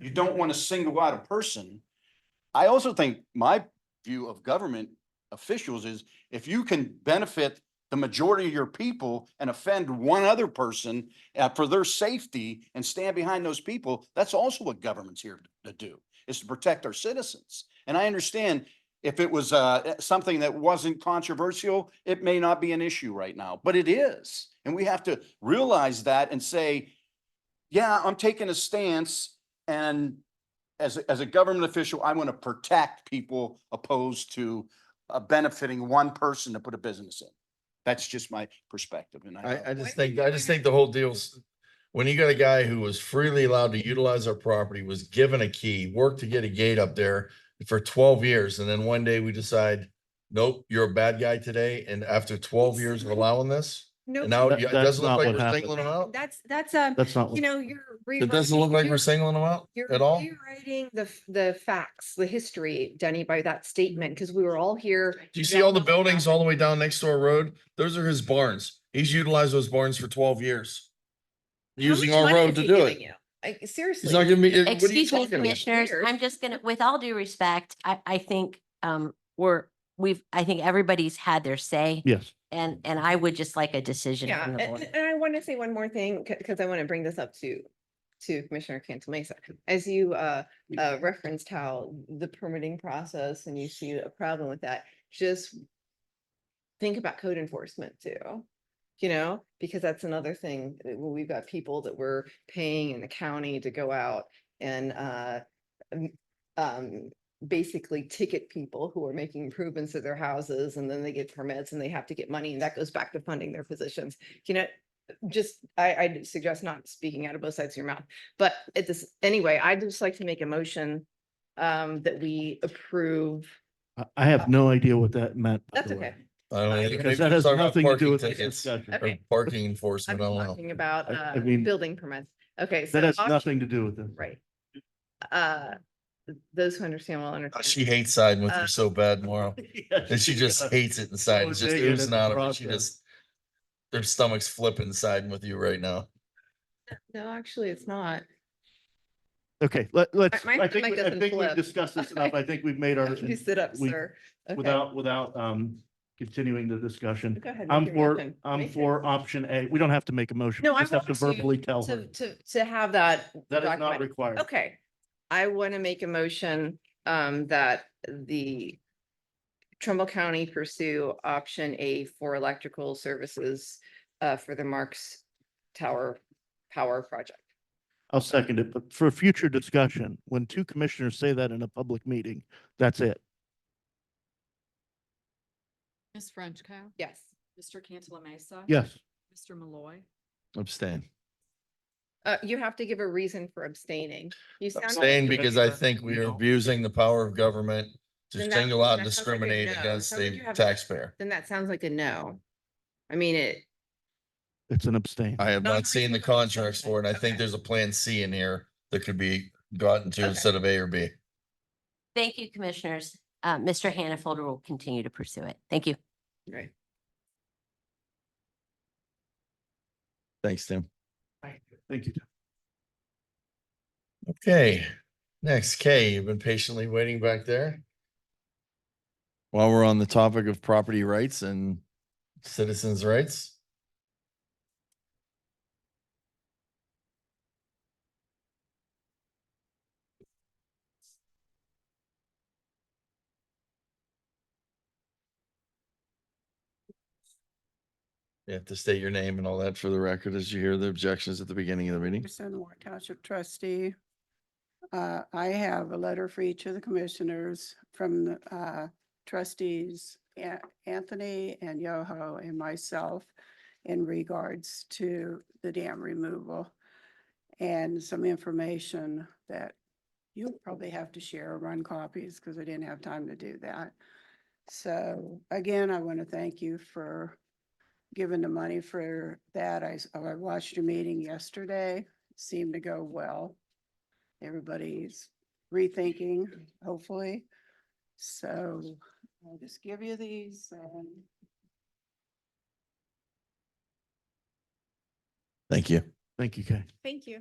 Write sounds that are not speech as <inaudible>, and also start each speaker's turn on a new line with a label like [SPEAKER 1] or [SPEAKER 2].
[SPEAKER 1] You don't want to single out a person. I also think my view of government officials is if you can benefit the majority of your people and offend one other person uh, for their safety and stand behind those people, that's also what government's here to do, is to protect our citizens. And I understand if it was uh, something that wasn't controversial, it may not be an issue right now, but it is. And we have to realize that and say, yeah, I'm taking a stance and as, a- as a government official, I want to protect people opposed to uh, benefiting one person to put a business in. That's just my perspective and I.
[SPEAKER 2] I, I
[SPEAKER 3] Why
[SPEAKER 2] just
[SPEAKER 3] do you
[SPEAKER 2] think, I
[SPEAKER 3] think-
[SPEAKER 2] just think the whole deal's, when you got a guy who was freely allowed to utilize our property, was given a key, worked to get a gate up there for twelve years, and then one day we decide, nope, you're a bad guy today, and after twelve years of allowing this,
[SPEAKER 3] No,
[SPEAKER 2] and now
[SPEAKER 4] That-
[SPEAKER 2] you- it
[SPEAKER 4] that's
[SPEAKER 2] doesn't
[SPEAKER 4] not
[SPEAKER 2] look like
[SPEAKER 4] what
[SPEAKER 2] we're
[SPEAKER 4] happened.
[SPEAKER 2] singling him out?
[SPEAKER 3] that's, that's, um,
[SPEAKER 4] That's not.
[SPEAKER 3] you
[SPEAKER 4] what-
[SPEAKER 3] know, you're.
[SPEAKER 2] It doesn't look like
[SPEAKER 3] rewriting-
[SPEAKER 2] we're singling him out
[SPEAKER 3] you're-
[SPEAKER 2] at all?
[SPEAKER 3] You're rewriting the, f- the facts, the history, Denny, by that statement, because we were all here.
[SPEAKER 2] Do you see all the buildings all the way down next door road? Those are his barns. He's utilized those barns for twelve years. Using our road to do it.
[SPEAKER 3] Like,
[SPEAKER 2] He's not
[SPEAKER 3] seriously.
[SPEAKER 2] giving me, what are you
[SPEAKER 5] Excuse me,
[SPEAKER 2] talking about?
[SPEAKER 5] commissioners,
[SPEAKER 3] Weird.
[SPEAKER 5] I'm just gonna, with all due respect, I, I think, um, we're, we've, I think everybody's had their say.
[SPEAKER 4] Yes.
[SPEAKER 5] And, and I would just like a decision
[SPEAKER 3] Yeah,
[SPEAKER 5] from
[SPEAKER 3] and,
[SPEAKER 5] the board.
[SPEAKER 3] and I want to say one more thing, because I want to bring this up to, to Commissioner Cantal Mesa. As you, uh, uh, referenced how the permitting process and you see a problem with that, just think about code enforcement too. You know, because that's another thing, that when we've got people that we're paying in the county to go out and, uh, um, um, basically ticket people who are making improvements to their houses and then they get permits and they have to get money and that goes back to funding their positions. You know, just, I, I suggest not speaking out of both sides of your mouth. But at this, anyway, I'd just like to make a motion um, that we approve.
[SPEAKER 4] I, I have no idea what that meant. by
[SPEAKER 3] That's
[SPEAKER 4] the way.
[SPEAKER 3] okay.
[SPEAKER 2] I don't know.
[SPEAKER 4] Because
[SPEAKER 2] Maybe
[SPEAKER 4] that
[SPEAKER 2] he's
[SPEAKER 4] has
[SPEAKER 2] talking about
[SPEAKER 4] nothing to do
[SPEAKER 2] parking
[SPEAKER 4] with this
[SPEAKER 2] tickets
[SPEAKER 4] discussion.
[SPEAKER 2] Or
[SPEAKER 3] Okay.
[SPEAKER 2] parking
[SPEAKER 3] I'm
[SPEAKER 2] enforcement, I don't know.
[SPEAKER 3] talking about
[SPEAKER 4] I- I
[SPEAKER 3] uh,
[SPEAKER 4] mean-
[SPEAKER 3] building permits. Okay. so
[SPEAKER 4] That has
[SPEAKER 3] occup-
[SPEAKER 4] nothing to do with this.
[SPEAKER 3] <laughs> Right. Uh, Those who understand will
[SPEAKER 2] Oh, She
[SPEAKER 3] understand.
[SPEAKER 2] hates siding with
[SPEAKER 3] Uh,
[SPEAKER 2] you so bad, Mauro.
[SPEAKER 4] <laughs> Yes,
[SPEAKER 2] And she
[SPEAKER 3] <laughs>
[SPEAKER 2] just
[SPEAKER 4] does.
[SPEAKER 2] hates it inside.
[SPEAKER 4] So
[SPEAKER 2] It's just
[SPEAKER 4] big and
[SPEAKER 2] oohs
[SPEAKER 4] it's
[SPEAKER 2] and
[SPEAKER 4] a
[SPEAKER 2] ahs, but she
[SPEAKER 4] process.
[SPEAKER 2] just. Their stomach's flipping siding with you right now.
[SPEAKER 3] No, actually, it's not.
[SPEAKER 4] Okay, let, let's,
[SPEAKER 3] my
[SPEAKER 4] I think,
[SPEAKER 3] stomach
[SPEAKER 4] we- I
[SPEAKER 3] doesn't
[SPEAKER 4] think we've
[SPEAKER 3] flip.
[SPEAKER 4] discussed this enough. I think we've made our,
[SPEAKER 3] <laughs> You sit up,
[SPEAKER 4] Uh, we-
[SPEAKER 3] sir. Okay.
[SPEAKER 4] without, without, um, continuing the discussion.
[SPEAKER 3] Go ahead, make
[SPEAKER 4] I'm
[SPEAKER 3] your
[SPEAKER 4] for,
[SPEAKER 3] motion.
[SPEAKER 4] I'm
[SPEAKER 3] Make it.
[SPEAKER 4] for option A. We don't have to make a motion.
[SPEAKER 3] No,
[SPEAKER 4] We
[SPEAKER 3] I
[SPEAKER 4] Just have to
[SPEAKER 3] want to-
[SPEAKER 4] verbally tell
[SPEAKER 3] To,
[SPEAKER 4] her.
[SPEAKER 3] to, to have that.
[SPEAKER 4] That is not
[SPEAKER 3] document.
[SPEAKER 4] required.
[SPEAKER 3] Okay, I want to make a motion um that the Trumbull County pursue option A for electrical services uh for the Marks Tower Power Project.
[SPEAKER 4] I'll second it, but for future discussion, when two commissioners say that in a public meeting, that's it.
[SPEAKER 6] Ms. Frenchco.
[SPEAKER 3] Yes.
[SPEAKER 6] Mr. Cantala Mesa.
[SPEAKER 4] Yes.
[SPEAKER 6] Mr. Malloy.
[SPEAKER 2] Abstain.
[SPEAKER 3] Uh, you have to give a reason for abstaining. You sound like
[SPEAKER 2] Abstain
[SPEAKER 3] you-
[SPEAKER 2] because I think we are abusing the power of government to
[SPEAKER 3] Then that-
[SPEAKER 2] single out and
[SPEAKER 3] that sounds like a
[SPEAKER 2] discriminate
[SPEAKER 3] no.
[SPEAKER 2] against
[SPEAKER 3] Sounds like
[SPEAKER 2] the
[SPEAKER 3] you have-
[SPEAKER 2] taxpayer.
[SPEAKER 3] Then that sounds like a no. I mean, it,
[SPEAKER 4] It's an abstain.
[SPEAKER 2] I have
[SPEAKER 3] No,
[SPEAKER 2] not
[SPEAKER 3] I
[SPEAKER 2] seen the
[SPEAKER 3] think that's
[SPEAKER 2] contracts for it. and I think
[SPEAKER 3] okay.
[SPEAKER 2] there's a plan C in here that could be gotten to
[SPEAKER 3] Okay.
[SPEAKER 2] instead of A or B.
[SPEAKER 5] Thank you, commissioners. Uh, Mr. Hannaford will continue to pursue it. Thank you.
[SPEAKER 3] right.
[SPEAKER 2] Thanks, Tim.
[SPEAKER 4] Thank you.
[SPEAKER 2] Okay, next, Kay, you've been patiently waiting back there. While we're on the topic of property rights and citizens' rights. You have to state your name and all that for the record as you hear the objections at the beginning of the meeting.
[SPEAKER 7] Anderson, Warren Township trustee. Uh, I have a letter for each of the commissioners from the uh, trustees An- Anthony and Yoho and myself in regards to the dam removal and some information that you'll probably have to share or run copies because I didn't have time to do that. So again, I want to thank you for giving the money for that. I, s- I watched your meeting yesterday seemed to go well. Everybody's rethinking, hopefully. So I'll just give you these and
[SPEAKER 2] Thank you.
[SPEAKER 4] Thank you, Kay.
[SPEAKER 3] Thank you.